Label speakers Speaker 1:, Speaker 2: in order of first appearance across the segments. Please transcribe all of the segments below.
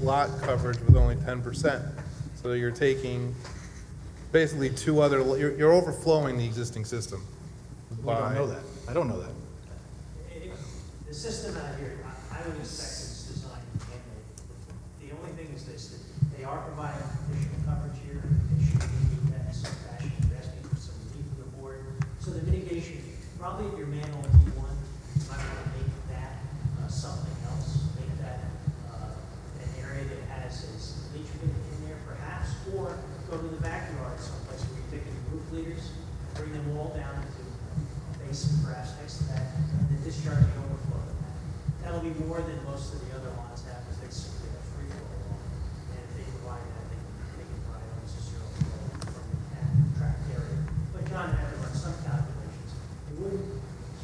Speaker 1: lot coverage with only ten percent. So you're taking basically two other, you're, you're overflowing the existing system.
Speaker 2: We don't know
Speaker 1: by-
Speaker 2: that. I don't know that.
Speaker 3: It- The system out here, I, I would expect it's designed handmade. The only thing is this, that they are providing additional coverage here, they should be that in some fashion, you're asking for some relief from the board. So the mitigation, probably if your manual D one, you might want to make that uh, something else, make that uh, an area that has its leach pit in there perhaps, or go to the backyard someplace where you're taking roof leaders, bring them all down into a basin perhaps next to that, and then discharge the overflow of that. That'll be more than most of the other lines have, because they simply have free flow along. And if they provide that, they can, they can provide almost a zero flow from that tract area. But John had to run some calculations. It wouldn't,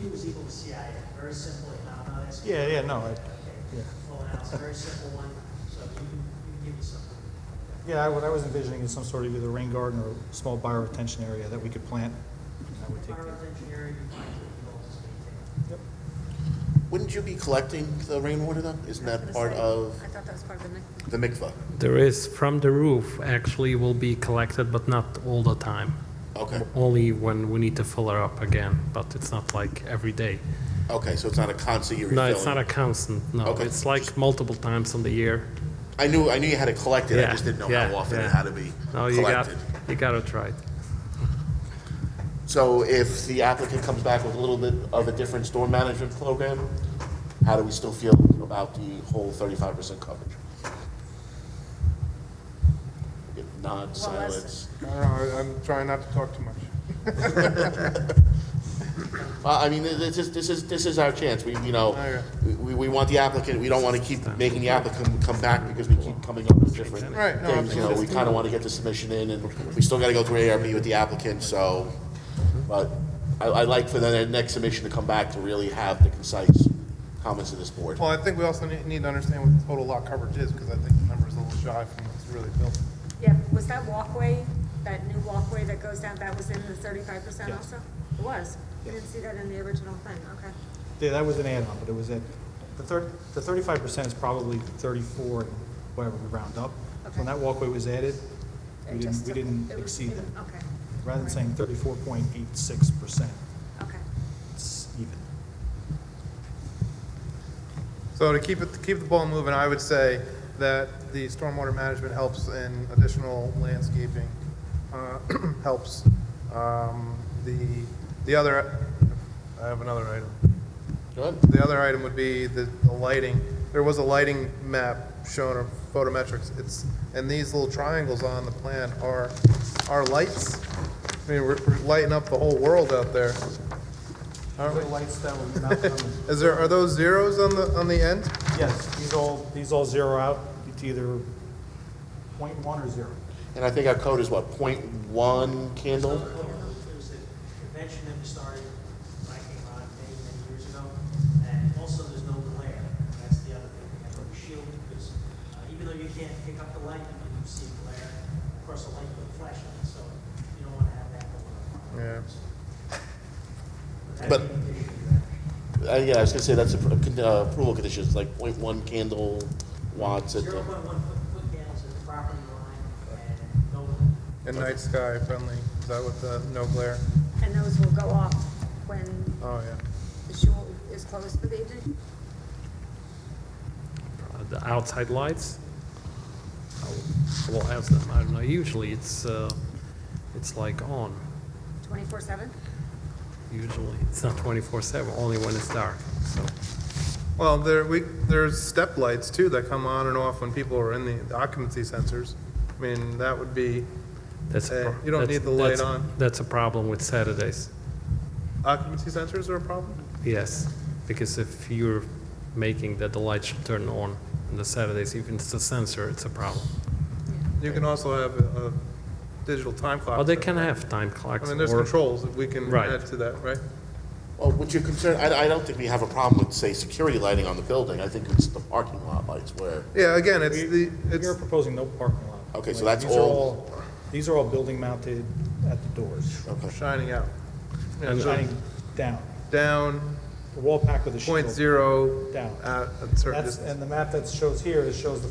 Speaker 3: Q is equal to CI, very simply, and I'm not asking.
Speaker 2: Yeah, yeah, no, I- yeah.
Speaker 3: Okay, full analysis, very simple one, so you can, you can give me something.
Speaker 2: Yeah, I- what I was envisioning is some sort of either rain garden or small bioretention area that we could plant. and that would take the-
Speaker 3: Environmental engineering, you find the goals is maintained.
Speaker 2: Yep.
Speaker 4: Wouldn't you be collecting the rainwater though? Isn't
Speaker 5: I
Speaker 4: that
Speaker 5: was
Speaker 4: part
Speaker 5: gonna say,
Speaker 4: of
Speaker 5: I thought that was part of the mix.
Speaker 4: the mikvah?
Speaker 6: There is, from the roof, actually will be collected, but not all the time.
Speaker 4: Okay,
Speaker 6: Only when we need to fill her up again, but it's not like every day.
Speaker 4: okay, so it's not a constant you're
Speaker 6: No, it's not a
Speaker 4: refilling.
Speaker 6: constant, no.
Speaker 4: Okay.
Speaker 6: It's like multiple times in the year.
Speaker 4: I knew, I knew you had it collected, I
Speaker 6: Yeah,
Speaker 4: just didn't know
Speaker 6: yeah,
Speaker 4: how often
Speaker 6: yeah.
Speaker 4: it had to be
Speaker 6: No, you got,
Speaker 4: collected.
Speaker 6: you got it right.
Speaker 4: So if the applicant comes back with a little bit of a different storm management program, how do we still feel about the whole thirty-five percent coverage? If not,
Speaker 5: Well, that's-
Speaker 4: silence.
Speaker 1: I don't know, I- I'm trying not to talk too much.
Speaker 4: Well, I mean, this is, this is, this is our chance. We, you know,
Speaker 1: Okay.
Speaker 4: we, we want the applicant, we don't want to keep making the applicant come back because we keep coming up with different
Speaker 1: Right, no,
Speaker 4: things. You know, we kind of want to get the submission in and we still got to go through ARB with the applicant, so. But I, I'd like for the next submission to come back to really have the concise comments of this board.
Speaker 1: Well, I think we also need, need to understand what the total lot coverage is, because I think the number's a little shy from what's really built.
Speaker 5: Yeah, was that walkway, that new walkway that goes down, that was in the thirty-five percent also? It was. You didn't see that in the original thing, okay.
Speaker 2: Yeah, that was an add-on, but it was at, the thirty, the thirty-five percent is probably thirty-four, and whatever we round up.
Speaker 5: Okay.
Speaker 2: When that walkway was added,
Speaker 5: It
Speaker 2: we
Speaker 5: just
Speaker 2: didn't, we
Speaker 5: took-
Speaker 2: didn't
Speaker 5: it was
Speaker 2: exceed
Speaker 5: even-
Speaker 2: that.
Speaker 5: Okay,
Speaker 2: Rather than saying thirty-four point eight six percent,
Speaker 5: okay.
Speaker 2: it's even.
Speaker 1: So to keep it, to keep the ball moving, I would say that the stormwater management helps in additional landscaping, uh, helps. Um, The, the other, I have another item.
Speaker 4: Good?
Speaker 1: The other item would be the the lighting. There was a lighting map shown of photometrics. It's, and these little triangles on the plan are, are lights. I mean, we're we're lighting up the whole world out there. Aren't we?
Speaker 2: lights that were mounted on
Speaker 1: Is there, are those zeros on the, on the end?
Speaker 2: Yes, these all, these all zero out, it's either point one or zero.
Speaker 4: And I think our code is what, point one
Speaker 3: So,
Speaker 4: candle?
Speaker 3: It was a convention that was started, I came on many, many years ago, and also there's no glare. That's the other thing, we have to shield, because uh, even though you can't pick up the light, you can see glare. Of course, the light will flash on it, so you don't want to have that going
Speaker 1: Yeah.
Speaker 3: on. But.
Speaker 4: But-
Speaker 3: that'd be the issue there.
Speaker 4: Uh, yeah, I was gonna say that's a, pr- con- uh, approval condition, it's like point one candle watts at the.
Speaker 3: Zero point one foot, foot candles at the property line and no,
Speaker 1: And night sky friendly, is that what the, no glare?
Speaker 5: And those will go off when
Speaker 1: Oh, yeah.
Speaker 5: the shul is closed for the evening?
Speaker 6: Uh, The outside lights, I will- I will ask them. I don't know, usually it's, uh, it's like on.
Speaker 5: Twenty-four seven?
Speaker 6: Usually, it's not 24/7, only when it's dark, so.
Speaker 1: Well, there, we, there's step lights too that come on and off when people are in the- the occupancy sensors. I mean, that would be,
Speaker 6: That's a
Speaker 1: Uh,
Speaker 6: pro-
Speaker 1: you don't
Speaker 6: that's-
Speaker 1: need the light
Speaker 6: that's-
Speaker 1: on.
Speaker 6: That's a problem with Saturdays,
Speaker 1: occupancy sensors are a problem?
Speaker 6: yes, because if you're making that the light should turn on on the Saturdays, even if it's a sensor, it's a problem.
Speaker 1: You can also have a a digital time clock.
Speaker 6: Well, they can have time clocks.
Speaker 1: I mean, there's
Speaker 6: or-
Speaker 1: controls that we can
Speaker 6: Right.
Speaker 1: add to that, right?
Speaker 4: Well, would you concern, I, I don't think we have a problem with, say, security lighting on the building. I think it's the parking lot lights where,
Speaker 1: Yeah, again, it's the, it's,
Speaker 2: You're proposing no parking lot.
Speaker 4: Okay, so
Speaker 2: Like,
Speaker 4: that's
Speaker 2: these are
Speaker 4: all-
Speaker 2: These are all building mounted at the doors,
Speaker 4: okay.
Speaker 1: shining out. Yeah,
Speaker 6: And
Speaker 1: so
Speaker 2: shining down,
Speaker 1: Down
Speaker 2: the wall pack with a shield.
Speaker 1: point zero
Speaker 2: Down.
Speaker 1: at a certain
Speaker 2: That's,
Speaker 1: distance.
Speaker 2: and the map that shows here, it shows the